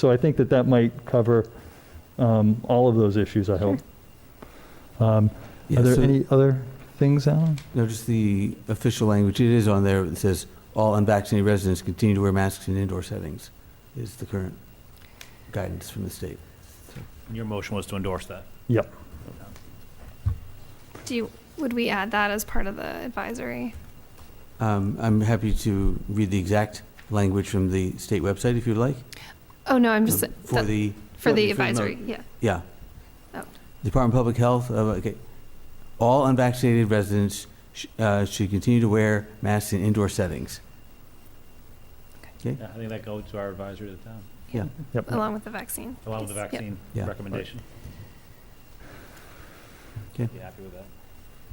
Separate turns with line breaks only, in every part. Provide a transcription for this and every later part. So I think that that might cover um, all of those issues, I hope. Um,
Yeah,
Are there
so-
any other things, Alan?
No, just the official language, it is on there, it says, "All unvaccinated residents continue to wear masks in indoor settings," is the current guidance from the state.
And Your motion was to endorse that.
Yep.
Do you, would we add that as part of the advisory?
Um, I'm happy to read the exact language from the state website if you'd like.
Oh, no, I'm just,
Um, For
the-
the,
for the
for the
advisory, yeah.
yeah.
Oh.
Department of Public Health, uh, okay, "All unvaccinated residents sh- uh, should continue to wear masks in indoor settings."
Yeah, I think that goes to our advisory to the town,
Yep.
Along with the vaccine.
along with the
piece. Yep.
vaccine
Yeah.
recommendation.
Okay.
Be happy with that.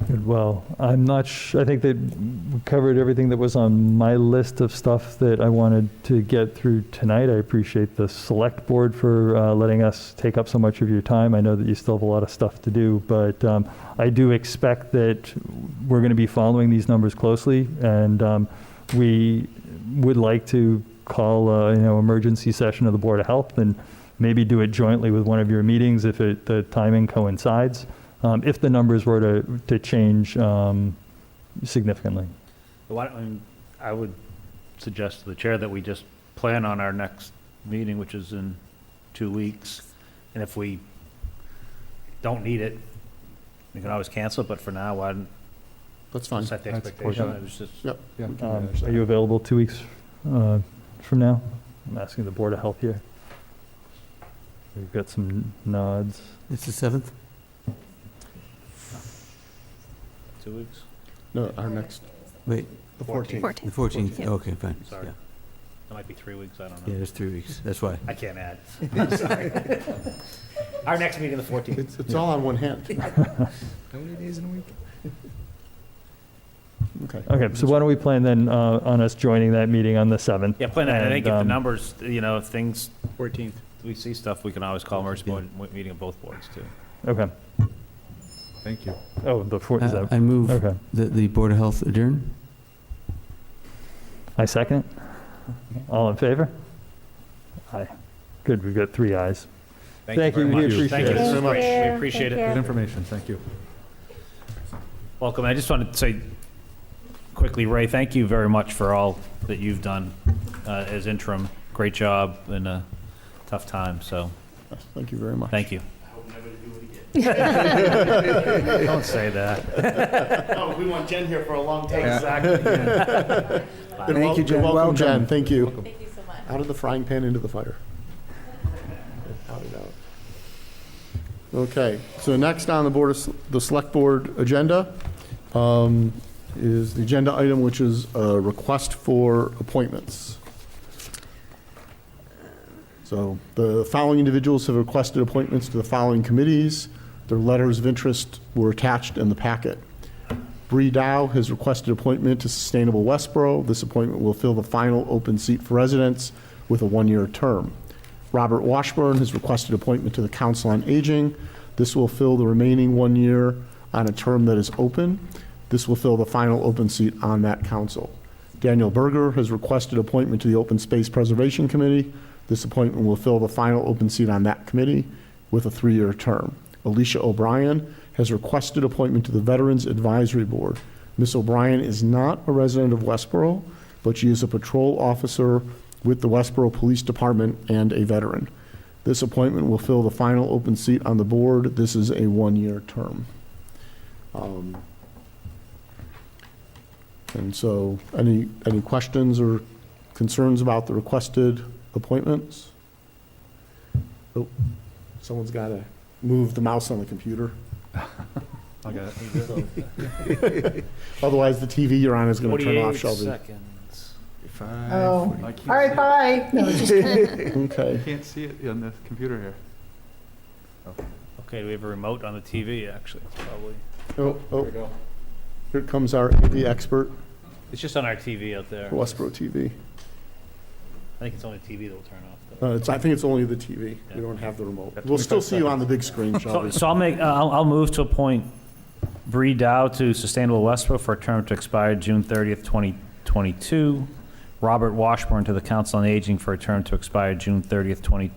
Good, Well, I'm not, sh- I think that we covered everything that was on my list of stuff that I wanted to get through tonight. I appreciate the select board for uh, letting us take up so much of your time. I know that you still have a lot of stuff to do, but um, I do expect that we're going to be following these numbers closely, and um, we would like to call, uh, you know, emergency session of the Board of Health and maybe do it jointly with one of your meetings if it, the timing coincides um, if the numbers were to, to change um, significantly.
But Why, don't- I mean, I would suggest to the chair that we just plan on our next meeting, which is in two weeks. And if we don't need it, we can always cancel, but for now, why don't
That's fine.
set the
That's
expectation?
important.
It was just-
Yep. we can
Um,
manage
Are
that.
you available two weeks uh, from now? I'm asking the Board of Health here. We've got some nods.
It's the 7th?
Two weeks?
No, our next,
Wait,
the 14th.
14th.
the 14th?
Yeah.
Okay, fine.
Sorry.
Yeah.
It might be three weeks, I don't
Yeah,
know.
it's three weeks, that's why.
I can't add. I'm sorry. Our next meeting, the 14th.
It's, it's all on one hand.
How many days in a week?
Okay.
Okay, so why don't we plan then uh, on us joining that meeting on the 7th?
Yeah, plan on, I think if the
And, um,
numbers, you know, if things,
14th.
we see stuff, we can always call emergency
Yeah.
board, meeting of both boards too.
Okay.
Thank you.
Oh, the 4th is
I-
out.
I move
Okay.
that the Board of Health adjourn?
I second. it. All in favor? Aye. Good, we've got three ayes. Thank you,
very
we
much.
appreciate
Thank you
it.
so much. We
Thank you.
appreciate
Thank
it.
you.
Good information, thank you.
Welcome. I just wanted to say quickly, Ray, thank you very much for all that you've done uh, as interim. Great job in a tough time, so
Thank you very much.
thank you. Don't say that.
Oh, we want Jen here for a long time.
And wel-
Thank you, Jen.
and Welcome,
Welcome.
Jen, thank you.
Thank you so much.
Out of the frying pan into the fire. Out and out. Okay, so next on the Board of, S- the Select Board agenda um, is the agenda item, which is a request for appointments. So the following individuals have requested appointments to the following committees. Their letters of interest were attached in the packet. Bree Dow has requested appointment to Sustainable Westboro. This appointment will fill the final open seat for residents with a one-year term. Robert Washburn has requested appointment to the Council on Aging. This will fill the remaining one year on a term that is open. This will fill the final open seat on that council. Daniel Berger has requested appointment to the Open Space Preservation Committee. This appointment will fill the final open seat on that committee with a three-year term. Alicia O'Brien has requested appointment to the Veterans Advisory Board. Ms. O'Brien is not a resident of Westboro, but she is a patrol officer with the Westboro Police Department and a veteran. This appointment will fill the final open seat on the board. This is a one-year term. Um, And so, any, any questions or concerns about the requested appointments? Oh, Someone's got to move the mouse on the computer.
I got it.
Otherwise, the TV you're on is going to turn
48
off, Shelby.
seconds.
Five.
Oh,
I
All right,
can't
bye. No, just kidding.
see-
Okay.
Can't see it on the computer here.
Okay, we have a remote on the TV, actually, It's probably.
Oh, oh,
go.
here comes our AV expert
It's just on our TV out there.
for Westboro TV.
I think it's only TV that'll turn off. though.
Uh, it's, I think it's only the TV. We don't have the remote.
Got
We'll still
25
see you on the big screen,
So,
Shelby.
so I'll make, uh, I'll, I'll move to appoint Bree Dow to Sustainable Westboro for a term to expire June 30th, 2022. Robert Washburn to the Council on Aging for a term to expire June 30th, 20,